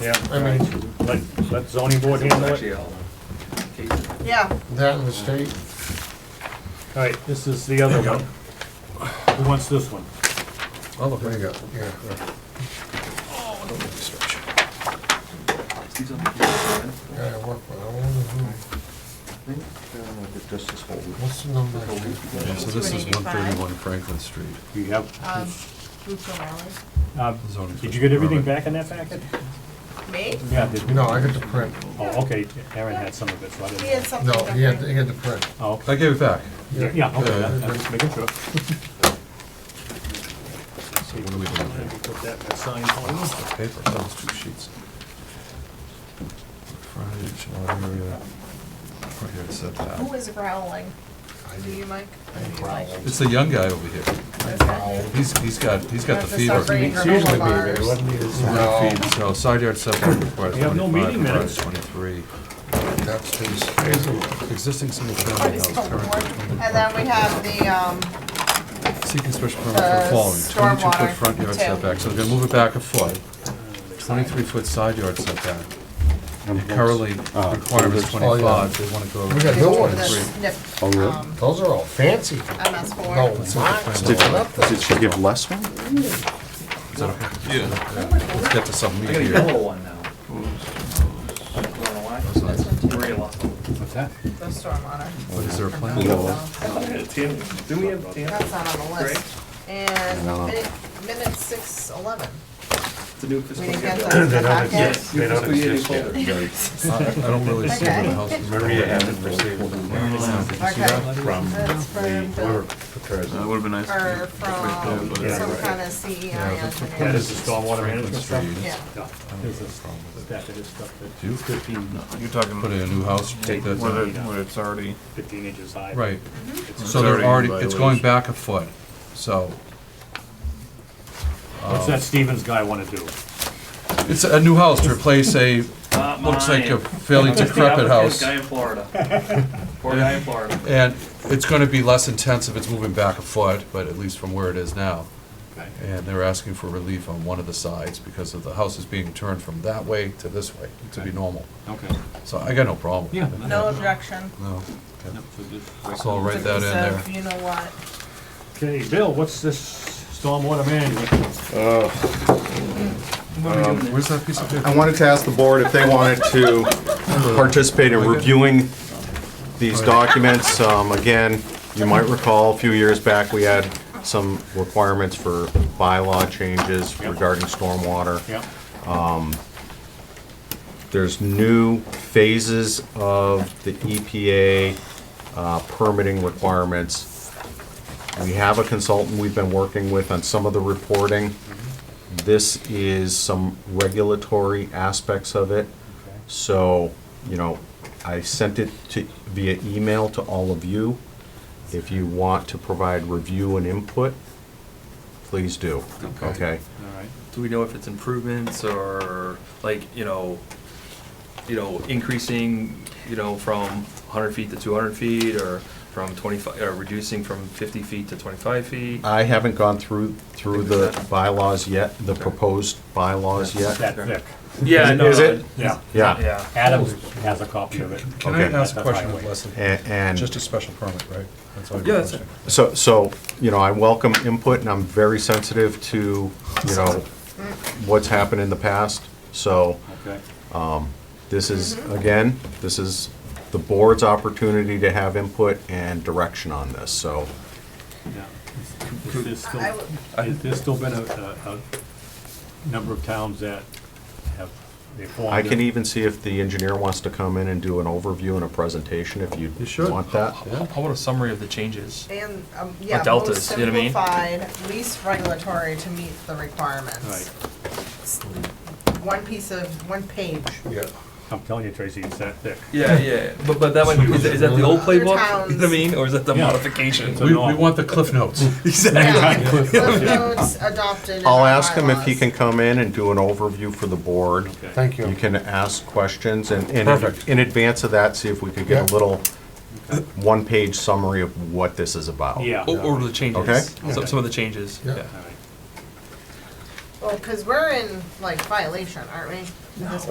Yeah, I mean, let, let zoning board handle it. uh, Yeah, that and the state. All right, this is the other one. Who wants this one? I'll look right up. Yeah. Yeah, I work with, I wonder who, what's the number? Yeah, so this is one thirty-one Franklin Street. You have, um, Luke O'Malley. uh, zoning did you get everything permit. back in that packet? Me? Yeah, did, No, I got the print. oh, okay, Aaron had some of it, so I He had didn't. something. No, he had, different. he had the print. Oh, okay. I gave it back. yeah, okay, Yeah. I'm just making sure. So what are we doing here? Put that in the sign folder. Paper, that was two sheets. Frontage, lot area. Right Oh, here, it said Who that. is growling? Do you, Mike? Or do you, Mike? It's the young guy over here. What is that name? He's, he's got, he's got the That's a fever. suffering He's Granola Seriously, baby, bars. wasn't it? got the fever, So side yard setback required We have no twenty-five, meeting garage minutes. twenty-three. That's his. Existing single What family is house, the current word? And then we have the, um, Seeking special permit for Uh, the following, twenty-two foot stormwater, front yard too. setback, so we're gonna move it back a foot, twenty-three foot side yard setback. Currently requirement is Oh, yeah. twenty-five, they wanna go. We got the no ones. SNF, Oh, really? um, Those are all fancy. MS four. No, it's not. Did Nothing. did she give less one? Yeah, let's get to something I got a here. yellow one now. I don't know why. Maria lost one. What's that? The stormwater. What, is there a plan? Yellow. No, Do we have tan? That's not on the list. And No. minute, minute six eleven. It's a new fiscal We year. didn't get those in the packet. Yes. New They don't fiscal year, new exist yet. folder. I I don't really see where the Okay. house is. Maria hasn't received it. Okay. From uh, That's from, whoever Bill- prepares it. would have been nice. or from Yeah, some right. kind of E CEI Yeah, that's what- That engineer. is the stormwater management stuff? Franklin Street. Yeah. Yeah, there's a stack of this stuff that's Do you fifteen, You're talking put in a new house, take that whether, down? whether it's already. fifteen inches high. Right, Mm-hmm. It's so they're already in already, it's going violation. back a foot, so. What's uh, that Stevens guy wanna do? It's a new house to replace a, Not looks like a mine. fairly It's the decrepit applicant's house. Guy in Florida. Poor guy in Florida. And it's gonna be less intense if it's moving back a foot, but at least from where it is now. And they're asking for relief on one of the sides because of the house is being turned from that way to this way, to be normal. Okay. So I got no problem. Yeah. No objection. No, okay. so I'll write that in there. So, You know what? Okay, Bill, what's this stormwater management? Uh, Where's that piece of paper? I wanted to ask the board if they wanted to participate in reviewing these documents. Um, Again, you might recall, a few years back, we had some requirements for bylaw changes regarding stormwater. Yeah, There's new phases of the EPA uh, permitting requirements. We have a consultant we've been working with on some of the reporting. This is some regulatory aspects of it. So, you know, I sent it to, via email to all of you. If you want to provide review and input, please do, okay? all right. Do we know if it's improvements or like, you know, you know, increasing, you know, from hundred feet to two hundred feet or from twenty-five, or reducing from fifty feet to twenty-five feet? I haven't gone through, through the bylaws yet, the proposed bylaws It's yet. that thick, Yeah, no. Is it? yeah. Yeah, Yeah. Adam has a copy of it. Can I Okay. ask a question of Highway. Leslie? A- Just and a special permit, right? That's all Yeah, you're that's requesting. so, so, you know, I welcome input and I'm very sensitive to, you know, what's happened in the past. So Okay, this is, Mm-hmm. again, this is the board's opportunity to have input and direction on this, so. yeah. Is there still, I would- has there still been a, a, a number of towns that have, they formed? I can e- it? even see if the engineer wants to come in and do an overview and a presentation if you You should. want that. How about a summary of the changes? And, um, yeah, most deltas, you know what I mean? simplified, least regulatory to meet the requirements. Right, One piece of, one page. Yeah. I'm telling you, Tracy, it's that thick. Yeah, yeah, but, but that might be, is that- is that the old Other playbook? towns. You know what I mean, or is that the Yeah. modification? It's a We, we norm. want the cliff notes. Yeah, Cliff notes adopted in I'll our ask him if he bylaws. can come in and do an overview for the board. Okay. Thank you. You can ask questions and, and Perfect. in- in advance of that, see if we could get Yeah. a little one-page summary of what this is about. Yeah. Oh, Or, or the Okay. changes, some, some of the changes, Yeah. yeah. All right. Well, because we're in like violation, aren't we? This